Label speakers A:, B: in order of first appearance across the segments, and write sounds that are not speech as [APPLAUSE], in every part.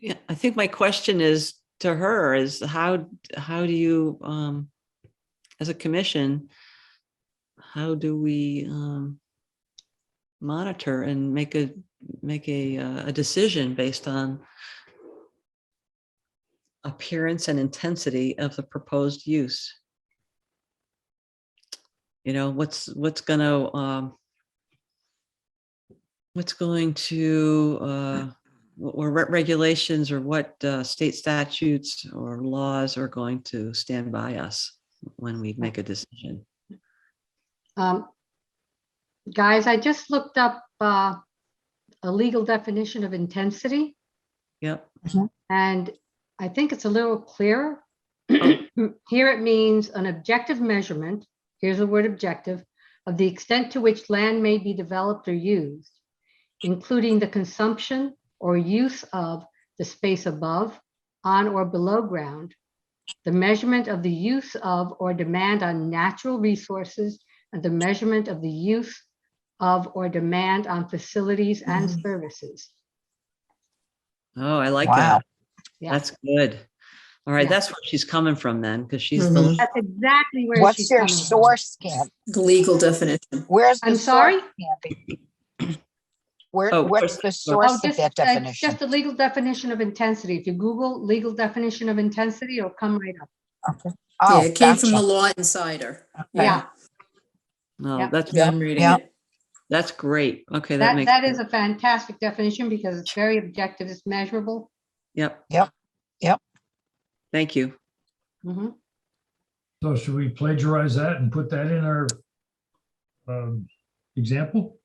A: Yeah, I think my question is to her is how, how do you, um, as a commission, how do we, um, monitor and make a, make a, uh, a decision based on appearance and intensity of the proposed use? You know, what's, what's gonna, um, what's going to, uh, wh- or what regulations or what uh, state statutes or laws are going to stand by us when we make a decision.
B: Um, Guys, I just looked up uh, a legal definition of intensity,
A: Yep.
B: and I think it's a little
C: [CLEARS THROAT]
B: clearer. Here it means an objective measurement, here's the word objective, of the extent to which land may be developed or used, including the consumption or use of the space above, on or below ground, the measurement of the use of or demand on natural resources, and the measurement of the use of or demand on facilities and services.
A: Oh, I like
C: Wow.
A: that.
B: Yeah.
A: That's good. All right,
B: Yeah.
A: that's where she's coming from then, because she's the,
C: Mm-hmm.
B: That's exactly where she's
C: What's
B: coming from.
C: your source, Camp?
D: The legal definition.
C: Where's the
B: I'm
C: source,
B: sorry?
C: Campy? Where,
A: Oh,
C: what's the
B: Oh,
C: source of
B: just,
C: that
B: uh,
C: definition?
B: just the legal definition of intensity. If you Google legal definition of intensity, it'll come right up.
C: Okay.
D: Yeah,
C: Oh,
D: it came from the
C: gotcha.
D: Law Insider.
C: Okay.
B: Yeah,
A: no,
B: Yeah.
A: Oh, that's,
D: Yeah, I'm reading
C: Yeah.
D: it.
A: that's great. Okay, that
B: that,
A: makes.
B: that is a fantastic definition because it's very objective, it's measurable.
A: Yep.
C: Yep, yep.
A: Thank you.
B: Mhm.
E: So should we plagiarize that and put that in our um, example?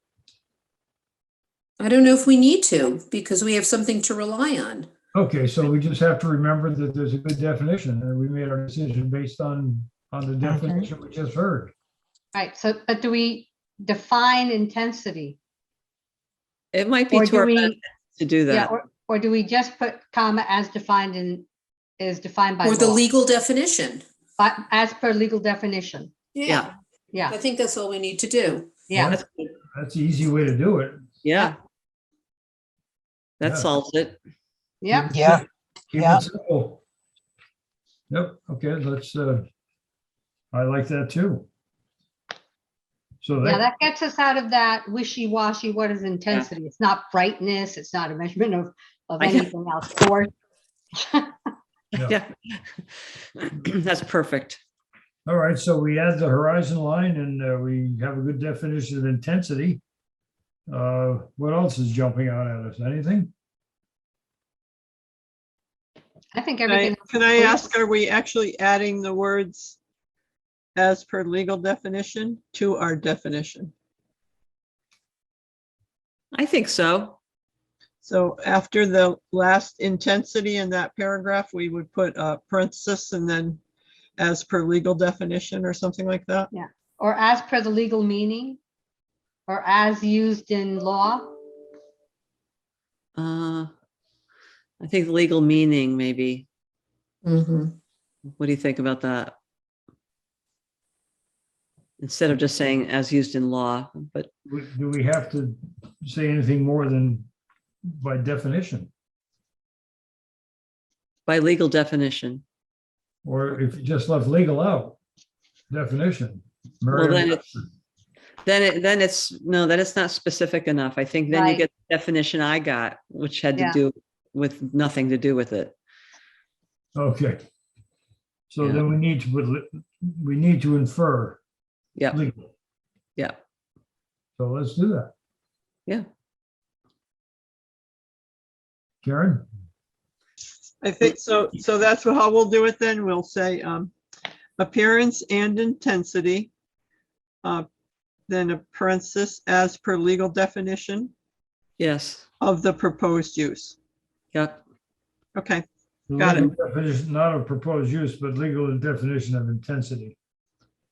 D: I don't know if we need to because we have something to rely on.
E: Okay, so we just have to remember that there's a good definition and we made our decision based on, on the definition we just heard.
B: Right, so, but do we define intensity?
A: It might be
B: Or
A: to
B: do
A: our
B: we,
A: benefit to do
B: yeah,
A: that.
B: or, or do we just put comma as defined in, is defined by
D: Or the
B: law,
D: legal definition.
B: but as per legal definition?
A: Yeah.
B: Yeah,
D: I think that's all we need to do.
B: yeah,
A: That's good.
E: That's the easy way to do it.
A: Yeah. That
E: Yeah.
A: solves it.
B: yeah.
C: Yeah,
E: Keep
C: Yeah.
E: it simple. Yep, okay, let's, uh, I like that too. So
B: Yeah,
E: that,
B: that gets us out of that wishy-washy, what is intensity? It's not brightness, it's not a measurement of, of
A: I know.
B: anything else. Or
A: Yeah. [CLEARS THROAT] That's perfect.
E: all right, so we add the horizon line and uh, we have a good definition of intensity. Uh, What else is jumping out at us? Anything?
B: I think
F: Can I-
B: everything,
F: Can I
B: clear.
F: ask, are we actually adding the words as per legal definition to our definition?
A: I think so.
F: So after the last intensity in that paragraph, we would put a parenthesis and then as per legal definition or something like that?
B: or as per the legal meaning, or as used in law.
A: Uh, I think legal meaning, maybe.
D: Mhm.
A: What do you think about that? Instead of just saying as used in law, but
E: We- Do we have to say anything more than by definition?
A: by legal definition.
E: Or if you just left legal out, definition?
A: Well, then
E: Merriam-
A: it's, then it, then it's, no, then it's not specific enough. I think then you
B: Right.
A: get the definition I got, which had to
B: Yeah.
A: do with nothing to do with it.
E: Okay. So
A: Yeah.
E: then we need to, put li- we need to infer
A: Yeah,
E: legal.
A: yeah.
E: So let's do that.
A: Yeah.
E: Karen?
F: I think so. So that's how we'll do it then. We'll say um, appearance and intensity. uh, Then a parenthesis as per legal definition
A: Yes.
F: of the proposed use.
A: Yep.
F: Okay.
E: the
F: Got it.
E: legal definition, Not of proposed use, but legal definition of intensity.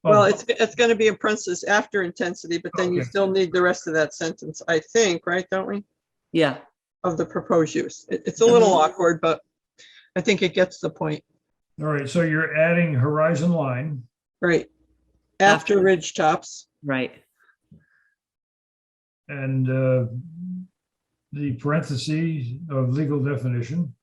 F: Well,
E: Oh,
F: it's, it's gonna be a parenthesis after intensity, but then you
E: Okay.
F: still need the rest of that sentence, I think, right, don't we?
A: Yeah.
F: Of the proposed use. It, it's a little awkward, but I think it gets the point,
E: All right, so you're adding horizon line.
F: right? After ridge tops,
A: Right.
E: And uh, the parentheses of legal definition.